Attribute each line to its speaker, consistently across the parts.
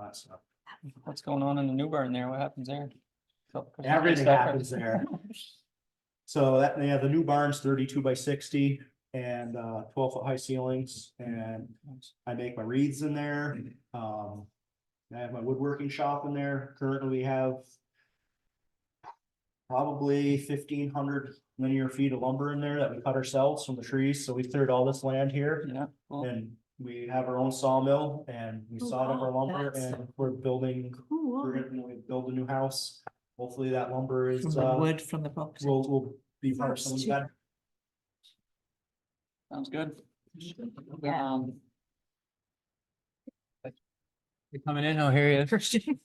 Speaker 1: that stuff.
Speaker 2: What's going on in the new barn there? What happens there? So-
Speaker 1: Everything happens there. So that, yeah, the new barn's thirty-two by sixty and uh twelve-foot high ceilings and I make my wreaths in there. Um, I have my woodworking shop in there. Currently, we have probably fifteen hundred linear feet of lumber in there that we cut ourselves from the trees. So we cleared all this land here.
Speaker 2: Yeah. cool.
Speaker 1: And we have our own sawmill and we
Speaker 3: Oh,
Speaker 1: sawed up our
Speaker 3: wow,
Speaker 1: lumber
Speaker 3: that's-
Speaker 1: and we're building,
Speaker 3: Cool.
Speaker 1: we're gonna when we build a new house. Hopefully that lumber
Speaker 3: From
Speaker 1: is,
Speaker 3: the
Speaker 1: uh,
Speaker 3: wood from the box.
Speaker 1: will, will be part of
Speaker 3: Sounds
Speaker 1: something
Speaker 3: cheap.
Speaker 1: better.
Speaker 2: Sounds good.
Speaker 3: Yeah.
Speaker 2: Um, you Coming in, I'll hear you.
Speaker 3: Christian.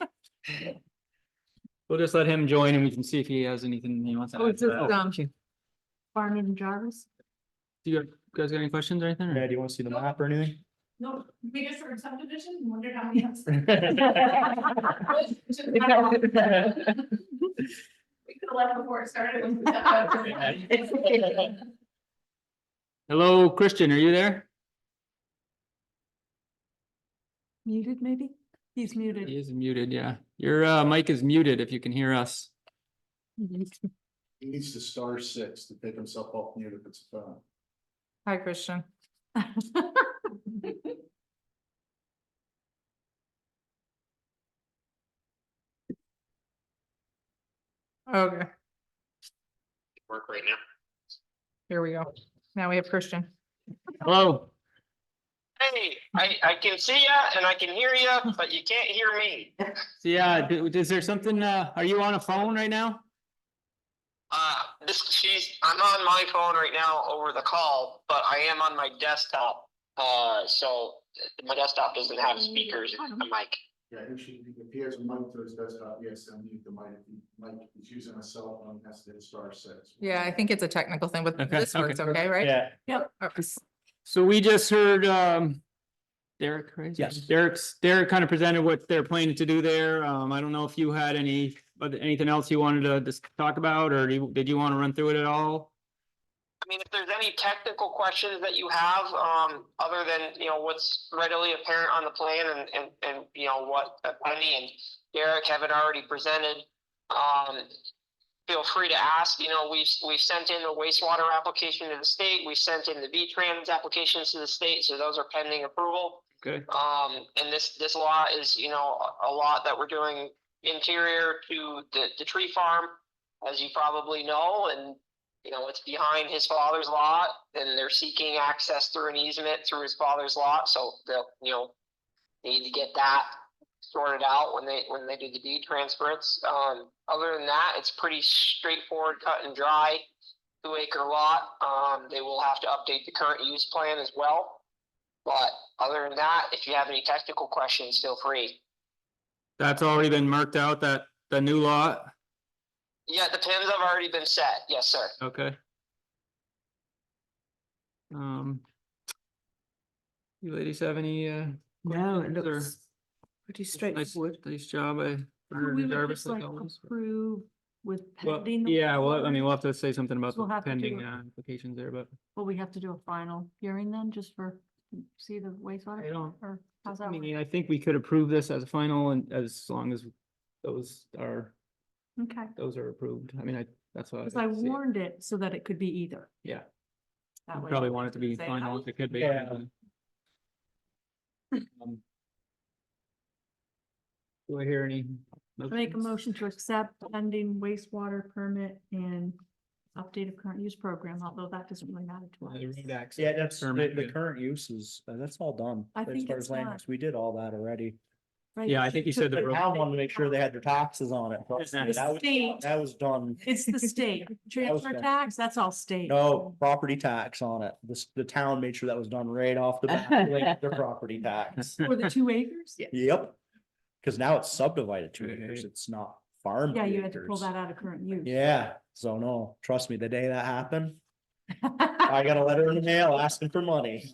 Speaker 2: We'll just let him join and we can see if he has anything he wants to
Speaker 3: Oh,
Speaker 2: add.
Speaker 3: it's
Speaker 2: to
Speaker 3: just,
Speaker 2: that.
Speaker 3: um, Barnum and Jarvis.
Speaker 2: Do you guys got any questions or anything?
Speaker 1: Yeah,
Speaker 2: or-
Speaker 1: do you wanna see the map or anything?
Speaker 4: No, biggest for subdivision, wondered how many. houses- We could have left before it started.
Speaker 2: Hello, Christian, are you there?
Speaker 3: Muted, maybe? He's
Speaker 2: He
Speaker 3: muted.
Speaker 2: is muted, yeah. Your uh mic is muted if you can hear us.
Speaker 5: He needs to star six to take himself off mute if it's a phone.
Speaker 3: Hi, Christian. Okay,
Speaker 6: work right now.
Speaker 3: here we go. Now we have Christian.
Speaker 2: Hello,
Speaker 6: Hey, I, I can see ya and I can hear ya, but you can't hear me. Uh,
Speaker 2: so yeah, d- is there something, uh, are you on a phone right now?
Speaker 6: Uh, this, she's, I'm on my phone right now over the call, but I am on my desktop. Uh, so my desktop doesn't have speakers and a mic.
Speaker 5: Yeah, he should, if he has a mic to his desktop, yes, I need the mic, If he- mic, if he's using a cell phone, he has to hit star six.
Speaker 3: Yeah, I think it's a technical thing, but
Speaker 2: Okay,
Speaker 3: this works
Speaker 2: okay.
Speaker 3: okay, right?
Speaker 1: Yeah,
Speaker 3: Okay.
Speaker 2: So we just heard um Derek, right?
Speaker 1: Yes.
Speaker 2: Derek's, Derek kind of presented what they're planning to do there. Um, I don't know if you had any, but anything else you wanted to just talk about, or do you- did you want to run through it at all?
Speaker 6: I mean, if there's any technical questions that you have, um, other than, you know, what's readily apparent on the plan and, and, and, you know, what Penny and Derek haven't already presented, um, feel free to ask, you know, we've, we've sent in the wastewater application to the state, we sent in the V-Trans applications to the state, so those are pending approval.
Speaker 2: Okay.
Speaker 6: Um, and this, this lot is, you know, a a lot that we're doing interior to the, the tree farm, as you probably know, and you know, it's behind his father's lot and they're seeking access through an easement through his father's lot, so they'll, you know, need to get that sorted out when they, when they do the deed transference. Um, other than that, it's pretty straightforward, cut and dry, two acre lot. Um, they will have to update the current use plan as well. But other than that, if you have any technical questions, feel free.
Speaker 2: That's already been marked out, that, the new lot.
Speaker 6: Yeah, the pins have already been set. Yes, sir.
Speaker 2: Okay. Um. You ladies have any, uh,
Speaker 3: No, it
Speaker 2: Questions or-
Speaker 3: looks pretty
Speaker 2: nice,
Speaker 3: straightforward.
Speaker 2: nice job, I.
Speaker 3: So We would just like approve with pending. the
Speaker 2: yeah, well, I
Speaker 3: wastewater?
Speaker 2: mean, we'll have to say something about
Speaker 3: We'll
Speaker 2: the
Speaker 3: have to do
Speaker 2: pending
Speaker 3: it.
Speaker 2: uh, applications there, but.
Speaker 3: Will we have to do a final hearing then, just for, see the wastewater?
Speaker 2: I don't-
Speaker 3: Or how's
Speaker 2: I
Speaker 3: that? work?
Speaker 2: mean, I think we could approve this as a final and as long as those are,
Speaker 3: Okay,
Speaker 2: those are approved. I mean, I, that's what.
Speaker 3: because
Speaker 2: I
Speaker 3: I
Speaker 2: see it.
Speaker 3: warned it so that it could be either.
Speaker 2: Yeah.
Speaker 3: That
Speaker 2: You
Speaker 3: way
Speaker 2: Probably
Speaker 3: nobody
Speaker 2: want it to
Speaker 3: can
Speaker 2: be
Speaker 3: say,
Speaker 2: final
Speaker 3: "Oh,
Speaker 2: if it could be.
Speaker 1: Yeah.
Speaker 2: Um, Do I hear any?
Speaker 3: I Make a
Speaker 2: motions?
Speaker 3: motion to accept pending wastewater permit and update of current use program, although that doesn't really matter to
Speaker 2: Uh, The road
Speaker 3: us.
Speaker 2: access.
Speaker 1: yeah, that's, the,
Speaker 2: Permit,
Speaker 1: the
Speaker 2: yeah.
Speaker 1: current uses, uh, that's all done.
Speaker 3: I
Speaker 1: as
Speaker 3: think
Speaker 1: far
Speaker 3: it's
Speaker 1: as land
Speaker 3: done.
Speaker 1: use. We did all that already.
Speaker 3: right?
Speaker 2: yeah, I
Speaker 3: She
Speaker 2: think you
Speaker 3: took
Speaker 2: said the
Speaker 3: it
Speaker 1: The
Speaker 2: road-
Speaker 3: out.
Speaker 1: town wanted to make sure they had their taxes on it. Trust me,
Speaker 2: The
Speaker 1: That was,
Speaker 3: state.
Speaker 1: that was done.
Speaker 3: It's the state, transfer
Speaker 1: done.
Speaker 3: tax, that's all state.
Speaker 1: No property tax on it. This, the town made sure that was done right off the bat, like their property tax.
Speaker 3: For the two acres? Yeah.
Speaker 1: Yep. Cause now it's subdivided two acres.
Speaker 2: Right.
Speaker 1: It's not farm.
Speaker 3: Yeah, you had to pull
Speaker 1: acres.
Speaker 3: that out of current use.
Speaker 1: Yeah, so no, trust me, the day that happened, I got a letter in the mail asking for money.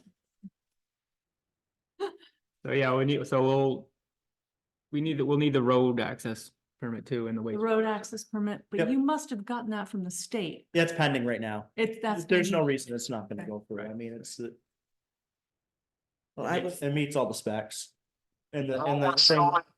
Speaker 2: So yeah, we need, so we'll, we need, we'll need the road access permit too and the
Speaker 3: The
Speaker 2: waste.
Speaker 3: road access permit,
Speaker 1: Yep.
Speaker 3: but you must have gotten that from the state.
Speaker 1: That's pending right now.
Speaker 3: It's, that's.
Speaker 1: There's
Speaker 3: been-
Speaker 1: no reason it's not gonna
Speaker 3: Okay.
Speaker 1: go through. I mean, it's. the-
Speaker 2: I was-
Speaker 1: It meets all the specs. And the,
Speaker 6: Oh,
Speaker 1: and the
Speaker 6: what's
Speaker 1: same,
Speaker 6: going-